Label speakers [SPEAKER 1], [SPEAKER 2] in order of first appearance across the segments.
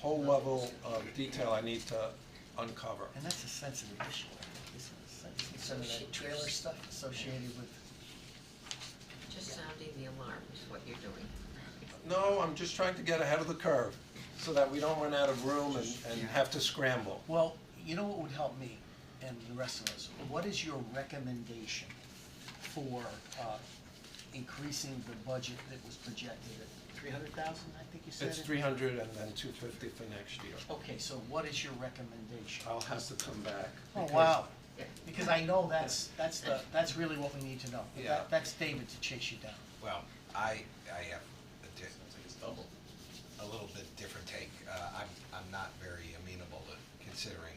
[SPEAKER 1] whole level of detail I need to uncover.
[SPEAKER 2] And that's a sensitive issue, I think, isn't it? Sen- Some of that trailer stuff associated with,
[SPEAKER 3] Just sounding the alarm is what you're doing.
[SPEAKER 1] No, I'm just trying to get ahead of the curve, so that we don't run out of room and, and have to scramble.
[SPEAKER 2] well, you know what would help me and the rest of us? What is your recommendation for, uh, increasing the budget that was projected at three hundred thousand, I think you said?
[SPEAKER 1] It's
[SPEAKER 2] it?
[SPEAKER 1] three hundred and then two fifty for next year.
[SPEAKER 2] Okay, so what is your recommendation?
[SPEAKER 1] I'll have to come back.
[SPEAKER 2] Oh,
[SPEAKER 1] because-
[SPEAKER 2] wow,
[SPEAKER 3] Yeah.
[SPEAKER 2] because I know that's, that's the, that's really what we need to know. That-
[SPEAKER 1] Yeah.
[SPEAKER 2] That's David to chase you down.
[SPEAKER 4] Well, I, I have a di- a little bit different take. Uh, I'm, I'm not very amenable to considering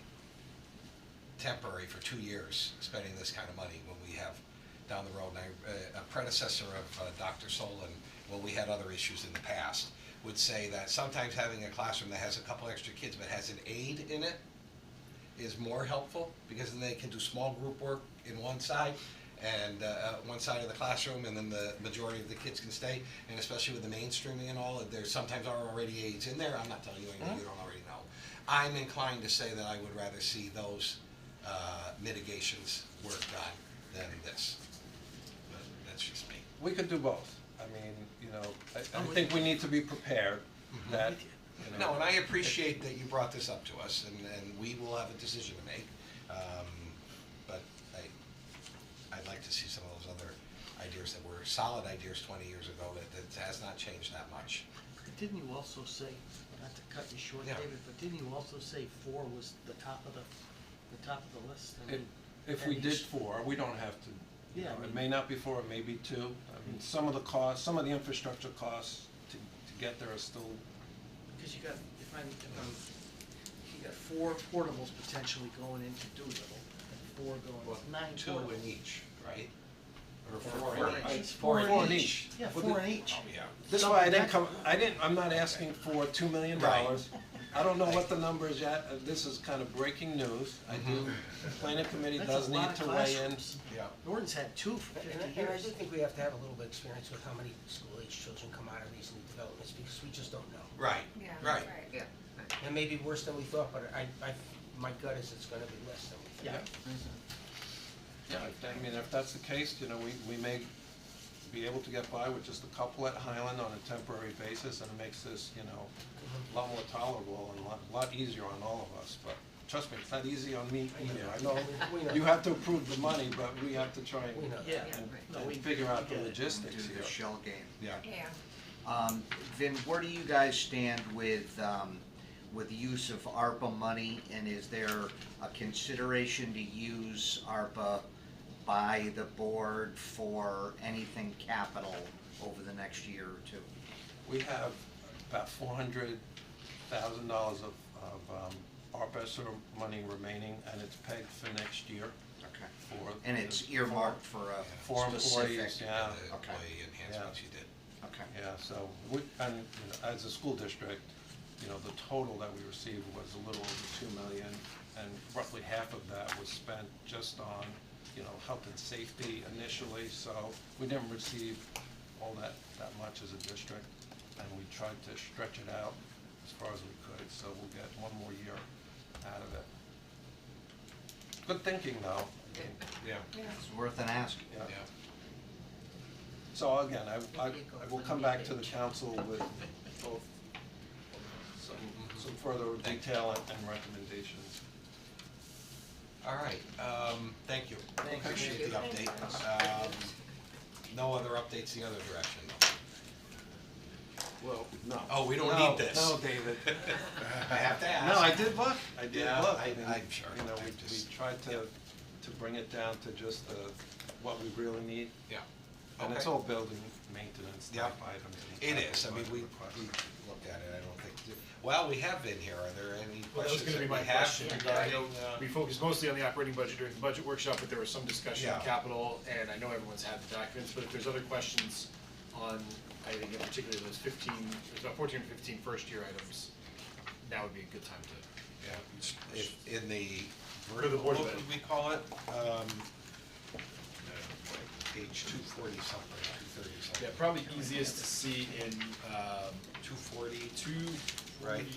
[SPEAKER 4] temporary for two years, spending this kind of money when we have down the road, and I- uh, a predecessor of uh, Dr. Solon, when we had other issues in the past, would say that sometimes having a classroom that has a couple extra kids but has an aide in it is more helpful, because then they can do small group work in one side, and, uh, uh, one side of the classroom, and then the majority of the kids can stay, and especially with the mainstreaming and all, there sometimes are already aides in there, I'm not telling you anything you don't already know. I'm inclined to say that I would rather see those, uh, mitigations work done than this, but that's just me.
[SPEAKER 1] We could do both. I mean, you know, I, I think we need to be prepared that, you know.
[SPEAKER 4] No, and I appreciate that you brought this up to us, and, and we will have a decision to make. Um, But I, I'd like to see some of those other ideas that were solid ideas twenty years ago that, that has not changed that much.
[SPEAKER 2] Didn't you also say, not to cut you short,
[SPEAKER 4] Yeah.
[SPEAKER 2] David, but didn't you also say four was the top of the, the top of the list? I
[SPEAKER 1] If,
[SPEAKER 2] mean,
[SPEAKER 1] if we
[SPEAKER 2] and
[SPEAKER 1] did
[SPEAKER 2] each-
[SPEAKER 1] four, we don't have to, you
[SPEAKER 2] Yeah, I
[SPEAKER 1] know, it
[SPEAKER 2] mean-
[SPEAKER 1] may not be four, it may be two. I mean, some of the costs, some of the infrastructure costs to, to get there are still,
[SPEAKER 2] Cause you got, if I'm, if I'm, you got four portables potentially going into Doolittle, and four going, nine
[SPEAKER 4] Two
[SPEAKER 2] portables.
[SPEAKER 4] in each, right? Or
[SPEAKER 1] four
[SPEAKER 4] four
[SPEAKER 1] in
[SPEAKER 4] in each?
[SPEAKER 1] each. Four in
[SPEAKER 2] Four in
[SPEAKER 1] each.
[SPEAKER 2] each, yeah,
[SPEAKER 1] Well,
[SPEAKER 2] four
[SPEAKER 1] the-
[SPEAKER 2] in each.
[SPEAKER 4] Oh, yeah.
[SPEAKER 1] this is why I didn't come, I didn't, I'm not asking for two million dollars. I don't know what the number is yet, Uh, this is kind of breaking news. I do, the planning committee
[SPEAKER 2] That's a
[SPEAKER 1] does need
[SPEAKER 2] lot of
[SPEAKER 1] to weigh in.
[SPEAKER 2] classrooms.
[SPEAKER 4] Yeah.
[SPEAKER 2] Norton's had two for
[SPEAKER 5] And
[SPEAKER 2] fifty
[SPEAKER 5] I, and I do
[SPEAKER 2] years.
[SPEAKER 5] think we have to have a little bit of experience with how many school-age children come out of these new developments, because we just don't know.
[SPEAKER 4] Right,
[SPEAKER 6] Yeah,
[SPEAKER 4] right.
[SPEAKER 3] Yeah.
[SPEAKER 5] And maybe worse than we thought, but I, I, my gut is it's gonna be less than we think.
[SPEAKER 2] Yeah,
[SPEAKER 1] Yeah, if- I mean, if that's the case, you know, we, we may be able to get by with just a couple at Highland on a temporary basis, and it makes this, you know, a lot more tolerable and a lot, lot easier on all of us, but trust me, it's not easy on me either. I
[SPEAKER 5] We
[SPEAKER 1] know
[SPEAKER 5] know.
[SPEAKER 1] you have to approve the money, but we have to try
[SPEAKER 5] We know
[SPEAKER 1] and,
[SPEAKER 5] that.
[SPEAKER 2] yeah.
[SPEAKER 3] Yeah,
[SPEAKER 1] and-
[SPEAKER 3] right.
[SPEAKER 2] No, we-
[SPEAKER 1] and figure out the
[SPEAKER 2] we get it.
[SPEAKER 1] logistics
[SPEAKER 7] Do
[SPEAKER 1] here.
[SPEAKER 7] the shell game.
[SPEAKER 4] Yeah.
[SPEAKER 6] Yeah.
[SPEAKER 7] Um, Vin, where do you guys stand with, um, with the use of ARPA money? And is there a consideration to use ARPA by the board for anything capital over the next year or two?
[SPEAKER 1] We have about four hundred thousand dollars of, of, um, ARPA sort of money remaining, and it's pegged for next year
[SPEAKER 7] Okay.
[SPEAKER 1] for.
[SPEAKER 7] And it's earmarked for
[SPEAKER 1] For
[SPEAKER 7] a
[SPEAKER 1] employees,
[SPEAKER 7] specific?
[SPEAKER 1] yeah.
[SPEAKER 4] And Uh, the
[SPEAKER 7] Okay.
[SPEAKER 4] employee enhancements you did.
[SPEAKER 7] Okay.
[SPEAKER 1] Yeah, so, we, and, you know, as a school district, you know, the total that we received was a little over two million, and roughly half of that was spent just on, you know, health and safety initially, so we didn't receive all that, that much as a district, and we tried to stretch it out as far as we could, so we'll get one more year out of it. Good thinking, though. I mean,
[SPEAKER 4] Yeah,
[SPEAKER 7] It's worth an ask.
[SPEAKER 1] yeah.
[SPEAKER 4] yeah.
[SPEAKER 1] So again, I, I, I will come back to the council with both some, some further detail and- and recommendations.
[SPEAKER 4] All right, um, thank you.
[SPEAKER 2] Thank you.
[SPEAKER 4] Appreciate the update. Um, no other updates the other direction, though.
[SPEAKER 1] Well, no.
[SPEAKER 4] Oh, we don't need this.
[SPEAKER 1] No, David.
[SPEAKER 4] I have to ask.
[SPEAKER 1] No, I did look, I did
[SPEAKER 4] Yeah,
[SPEAKER 1] look.
[SPEAKER 4] I-
[SPEAKER 1] and,
[SPEAKER 4] I'm sure.
[SPEAKER 1] You know, we,
[SPEAKER 4] I
[SPEAKER 1] we
[SPEAKER 4] just-
[SPEAKER 1] tried to, to bring it down to just the, what we really need.
[SPEAKER 4] Yeah.
[SPEAKER 1] And it's
[SPEAKER 4] Okay.
[SPEAKER 1] all building maintenance type
[SPEAKER 4] Yeah.
[SPEAKER 1] items.
[SPEAKER 4] It is, I mean, we, we
[SPEAKER 1] Requests.
[SPEAKER 4] looked at it, I don't think, well, we have been here, are there any
[SPEAKER 8] Well, that was
[SPEAKER 4] questions
[SPEAKER 8] gonna
[SPEAKER 4] that
[SPEAKER 8] be
[SPEAKER 4] we
[SPEAKER 8] my
[SPEAKER 4] have
[SPEAKER 8] question
[SPEAKER 4] regarding,
[SPEAKER 8] regarding,
[SPEAKER 4] uh,
[SPEAKER 8] we focused mostly on the operating budget during the budget workshop, but there was some discussion on
[SPEAKER 4] Yeah.
[SPEAKER 8] capital, and I know everyone's had the documents, but if there's other questions on, I think in particular those fifteen, there's about fourteen or fifteen first year items, now would be a good time to,
[SPEAKER 4] yeah, if- in the
[SPEAKER 8] the
[SPEAKER 4] vertical,
[SPEAKER 8] Board
[SPEAKER 4] what
[SPEAKER 8] of
[SPEAKER 4] would
[SPEAKER 8] Ed.
[SPEAKER 4] we call it? Um, Page two forty something, two thirty something.
[SPEAKER 8] yeah, probably easiest to see in, um,
[SPEAKER 4] Two forty,
[SPEAKER 8] two,
[SPEAKER 4] Right.